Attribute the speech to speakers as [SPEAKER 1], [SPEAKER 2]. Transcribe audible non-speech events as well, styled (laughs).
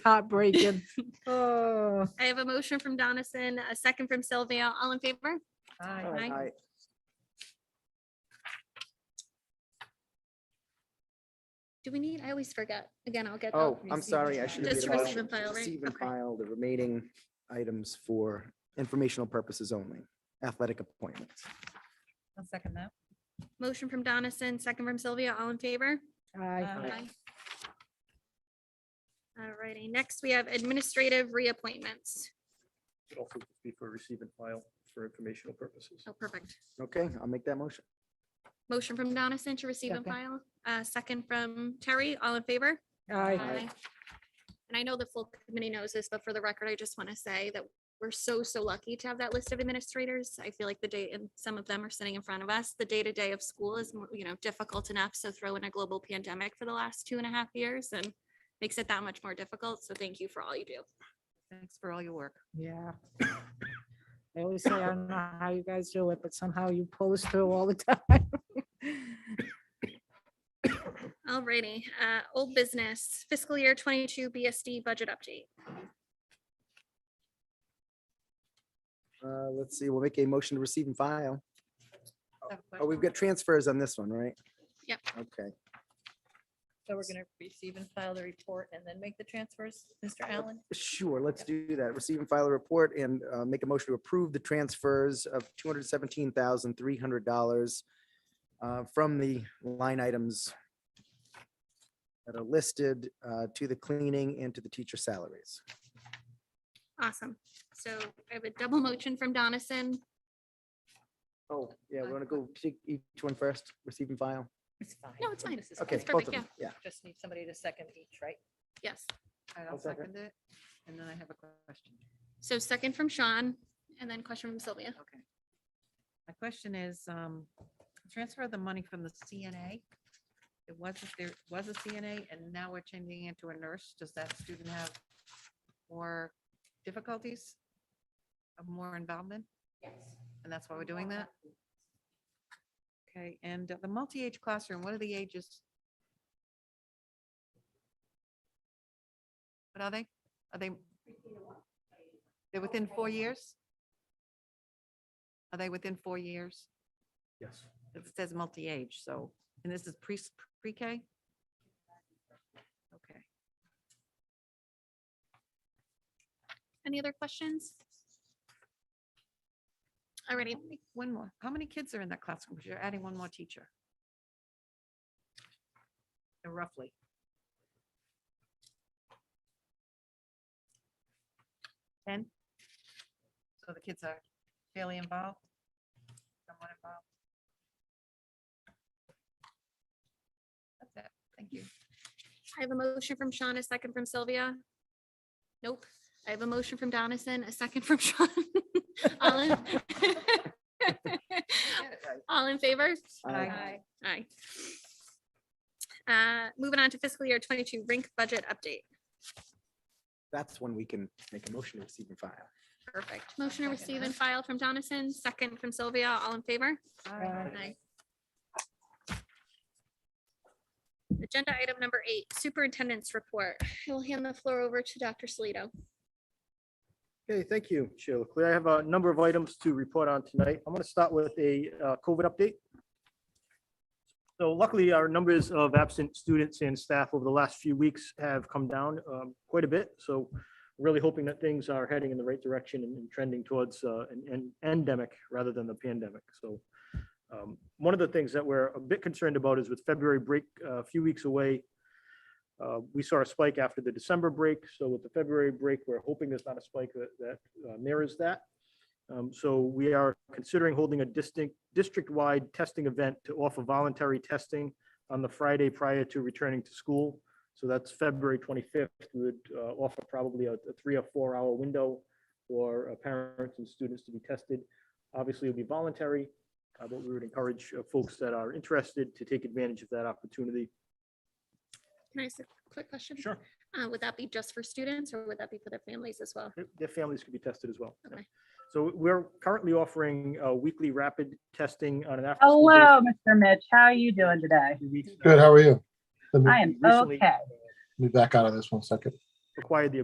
[SPEAKER 1] heartbreaking.
[SPEAKER 2] Oh.
[SPEAKER 3] I have a motion from Donison, a second from Sylvia. All in favor?
[SPEAKER 2] Aye.
[SPEAKER 3] Aye. Do we need, I always forget. Again, I'll get.
[SPEAKER 4] Oh,
[SPEAKER 3] I'll-
[SPEAKER 4] I'm sorry, I should have.
[SPEAKER 3] Just
[SPEAKER 4] made a
[SPEAKER 3] receive
[SPEAKER 4] motion
[SPEAKER 3] and
[SPEAKER 4] to
[SPEAKER 3] file, right?
[SPEAKER 4] Receive and
[SPEAKER 3] Okay.
[SPEAKER 4] file the remaining items for informational purposes only, athletic appointments.
[SPEAKER 2] I'll second that.
[SPEAKER 3] Motion from Donison, second from Sylvia. All in favor?
[SPEAKER 2] Aye.
[SPEAKER 3] Aye. Alrighty, next we have administrative reappointments.
[SPEAKER 5] Could also just be for receive and file for informational purposes.
[SPEAKER 3] Oh, perfect.
[SPEAKER 4] Okay, I'll make that motion.
[SPEAKER 3] Motion from Donison to receive and file, uh, second from Terry. All in favor?
[SPEAKER 2] Aye.
[SPEAKER 3] Aye. And I know the full committee knows this, but for the record, I just want to say that we're so, so lucky to have that list of administrators. I feel like the day, and some of them are sitting in front of us. The day-to-day of school is, more, you know, difficult enough. So throw in a global pandemic for the last two and a half years and makes it that much more difficult. So thank you for all you do.
[SPEAKER 6] Thanks for all your work.
[SPEAKER 2] (laughs) Yeah. I always say, I don't know how you guys do it, but somehow you pull us through all the (laughs) time.
[SPEAKER 3] Alrighty, uh, old business fiscal year twenty-two BSD budget update.
[SPEAKER 4] Uh, let's see, we'll make a motion to receive and file. Oh, we've
[SPEAKER 6] good.
[SPEAKER 4] got transfers on this one, right?
[SPEAKER 3] Yep.
[SPEAKER 4] Okay,
[SPEAKER 6] So we're gonna receive and file the report and then make the transfers, Mr.
[SPEAKER 4] Oh.
[SPEAKER 6] Allen?
[SPEAKER 4] sure, let's do that. Receive and file a report and uh, make a motion to approve the transfers of two hundred seventeen thousand three hundred dollars uh, from the line items that are listed uh, to the cleaning and to the teacher salaries.
[SPEAKER 3] Awesome. So I have a double motion from Donison.
[SPEAKER 4] Oh, yeah,
[SPEAKER 6] Uh,
[SPEAKER 4] we're gonna go take each one first, receive and file.
[SPEAKER 6] It's fine.
[SPEAKER 3] No, it's fine.
[SPEAKER 6] This is
[SPEAKER 4] Okay,
[SPEAKER 6] fine.
[SPEAKER 4] both
[SPEAKER 3] perfect,
[SPEAKER 4] of them, yeah.
[SPEAKER 6] Just need somebody to second each, right?
[SPEAKER 3] Yes.
[SPEAKER 4] I'll second
[SPEAKER 6] it, and then I have a question.
[SPEAKER 3] So second from Sean and then question from Sylvia.
[SPEAKER 6] Okay. My question is, um, transfer the money from the CNA. It wasn't, there was a CNA and now we're changing it to a nurse. Does that student have more difficulties? Of More involvement? Yes. And that's why we're doing that? Okay, and the multi-age classroom, what are the ages? What are they? Are they? They're within four years? Are they within four years?
[SPEAKER 5] Yes.
[SPEAKER 6] It says multi-age, so, and this is pre, pre-K? Okay.
[SPEAKER 3] Any other questions? Alrighty,
[SPEAKER 6] How many- One more. How many kids are in that classroom? Because you're adding one more teacher. Uh, Roughly. Ten? So the kids are fairly involved? Somewhat involved? That's it. Thank you.
[SPEAKER 3] I have a motion from Sean, a second from Sylvia. Nope, I have a motion from Donison, a second from (laughs) Sean. All in (laughs) All in favor?
[SPEAKER 4] Aye.
[SPEAKER 3] Aye. Uh, moving on to fiscal year twenty-two rink budget update.
[SPEAKER 4] That's when we can make a motion to receive and file.
[SPEAKER 3] Perfect. Motion to
[SPEAKER 6] Second
[SPEAKER 3] receive
[SPEAKER 6] that.
[SPEAKER 3] and file from Donison, second from Sylvia. All in favor?
[SPEAKER 2] Aye.
[SPEAKER 3] Aye. Agenda item number eight, superintendent's report. I will hand the floor over to Dr. Salito.
[SPEAKER 5] Okay, thank you, Chair Leclerc. I have a number of items to report on tonight. I'm going to start with a uh, COVID update. So luckily, our numbers of absent students and staff over the last few weeks have come down um, quite a bit. So really hoping that things are heading in the right direction and trending towards uh, an an endemic rather than the pandemic. So um, one of the things that we're a bit concerned about is with February break uh, a few weeks away, uh, We saw a spike after the December break, so with the February break, we're hoping there's not a spike that, that uh, mirrors that. Um, So we are considering holding a distinct, district-wide testing event to offer voluntary testing on the Friday prior to returning to school. So that's February 25th. We would uh, offer probably a a three or four-hour window for uh, parents and students to be tested. Obviously, it'll be voluntary, uh, but we would encourage uh, folks that are interested to take advantage of that opportunity.
[SPEAKER 3] Can I ask a quick question? Uh, would that be just for students or would that be for their families as well?
[SPEAKER 5] Their- Their families could be tested as well. yeah.
[SPEAKER 3] Okay.
[SPEAKER 5] So we're currently offering uh, weekly rapid testing on an after.
[SPEAKER 7] Hello, Mr. Mitch. How are you doing today?
[SPEAKER 8] Good, how are you? Let me
[SPEAKER 7] I am
[SPEAKER 5] Recently-
[SPEAKER 7] okay.
[SPEAKER 8] let me back out of this one second.
[SPEAKER 5] required the